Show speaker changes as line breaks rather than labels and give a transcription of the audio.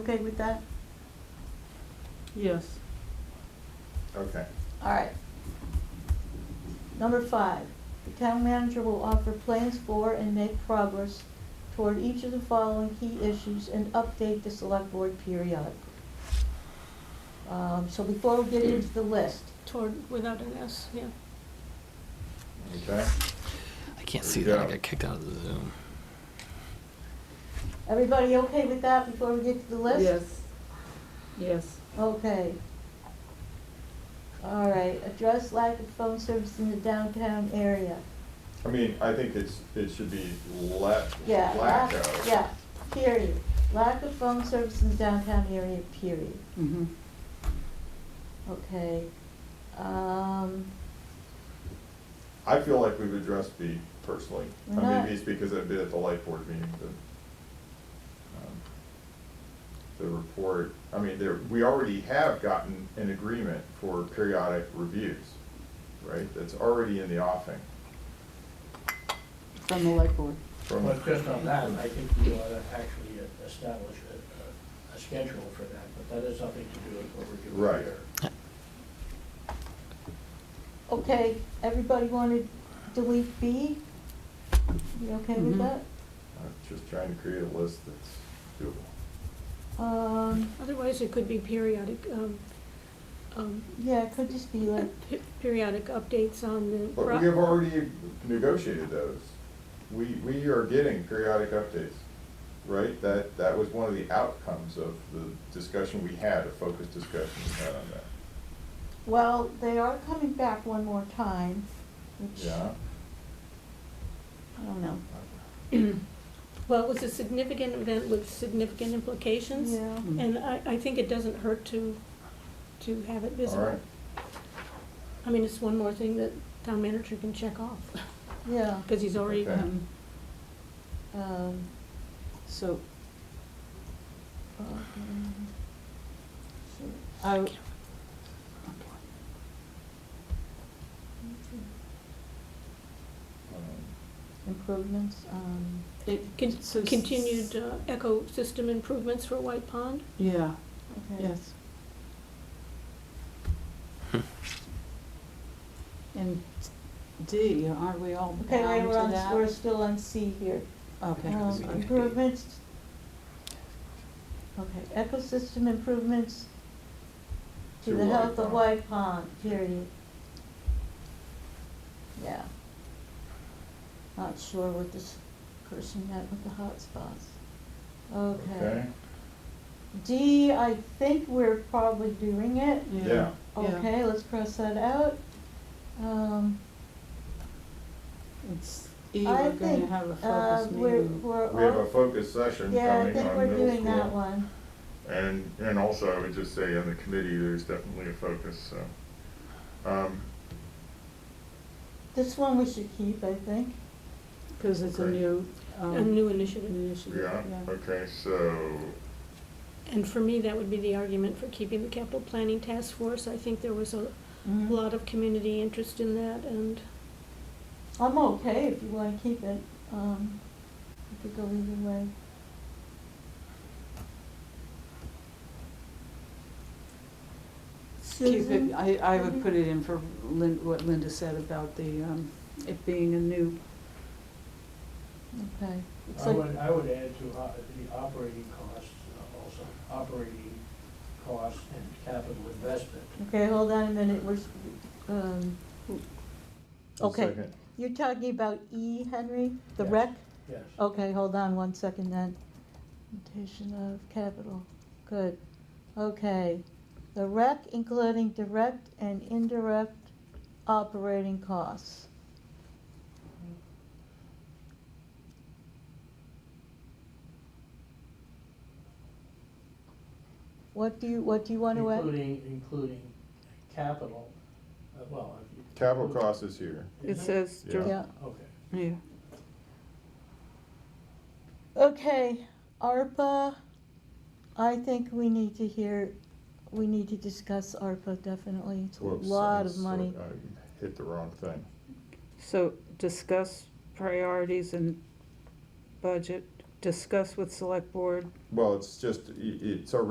okay with that?
Yes.
Okay.
All right. Number five, the town manager will offer plans for and make progress toward each of the following key issues and update the select board periodically. Um, so before we get into the list,
Toward, without an S, yeah.
Okay.
I can't see that. I
Yeah.
got kicked out of the Zoom.
everybody okay with that before we get to the list?
Yes. Yes.
Okay. All right, address lack of phone service in the downtown area.
I mean, I think it's, it should be la-
Yeah,
lack
lack,
of.
yeah, period. Lack of phone service in the downtown area, period.
Mm-hmm.
Okay. Um,
I feel like we've addressed B personally.
We're
I
not-
mean, B's because I've been at the light board meeting, the, um, the report, I mean, there, we already have gotten an agreement for periodic reviews, right? That's already in the offing.
From the light board.
from-
But just on that, I think we ought to actually establish a, a- a schedule for that, but that has nothing to do with what we're doing
Right.
here.
okay, everybody wanna delete B? You okay with
Mhm.
that?
I'm just trying to create a list that's doable.
Um,
Otherwise, it could be periodic, um, um,
yeah, it could just be like,
pe- periodic updates on the.
But
pro-
we have already negotiated those. We, we are getting periodic updates, right? That, that was one of the outcomes of the discussion we had, a focused discussion we had on that.
well, they are coming back one more time, which,
Yeah?
I don't know.
Well, it was a significant event with significant implications.
Yeah.
And I, I think it doesn't hurt to, to have it
All right.
visible. I mean, it's one more thing that town manager can check off,
Yeah,
because he's already,
Okay.
Um,
um,
So,
um, so-
I,
Um,
improvements, um,
it
Con-
says-
continued uh, ecosystem improvements for White Pond.
Yeah,
okay.
yes.
Hmm.
And D, aren't we all bound to
Okay,
that?
wait, we're on, we're still on C here.
Okay.
Um, improvements. Okay, ecosystem improvements to
To
the
White
health of
Pond.
White Pond, period. Yeah. Not sure what this person meant with the hotspots. Okay.
Um, Okay,
D, I think we're probably doing it.
Yeah.
Yeah,
Okay, let's cross that out. Um,
it's E,
I
we're gonna
think,
have a
uh,
focus
we're,
meeting.
we're.
we have
all-
a focused session
Yeah, I
coming
think
on
we're
middle
doing that
school.
one.
And, and also I would just say on the committee, there's definitely a focus, so. Um,
This one we should keep, I think.
Cause it's a
Okay.
new,
A
um,
new initiative.
initiative,
yeah,
yeah.
okay, so,
And for me, that would be the argument for keeping the capital planning task force. I think there was a
Mm-hmm.
lot of community interest in that, and
I'm okay if you wanna keep it, um, it could go either way.
Keep
Susan?
it, I, I would
Mhm.
put it in for Lin, what Linda said about the, um, it being a new,
Okay. It's
I
like-
would, I would add to o- the operating costs uh, also, operating costs and capital investment.
Okay, hold on a minute, we're, s- um, Okay.
second.
you're talking about E, Henry, the
Yes.
rec?
Yes.
Oh,
Okay, hold on one second then. Notation of capital, good. Okay, the rec including direct and indirect operating costs. What do you, what do you want to add?
Including, including capital, uh, well. if you-
Capital cost is here.
it says,
Yeah.
dir-
Yeah,
Okay.
yeah,
okay, ARPA, I think we need to hear, we need to discuss ARPA definitely, it's a
Whoops,
lot
I'm
of
so- uh,
money.
I Hit the wrong thing.
so discuss priorities and budget discuss with select board
Well, it's just, i- it's already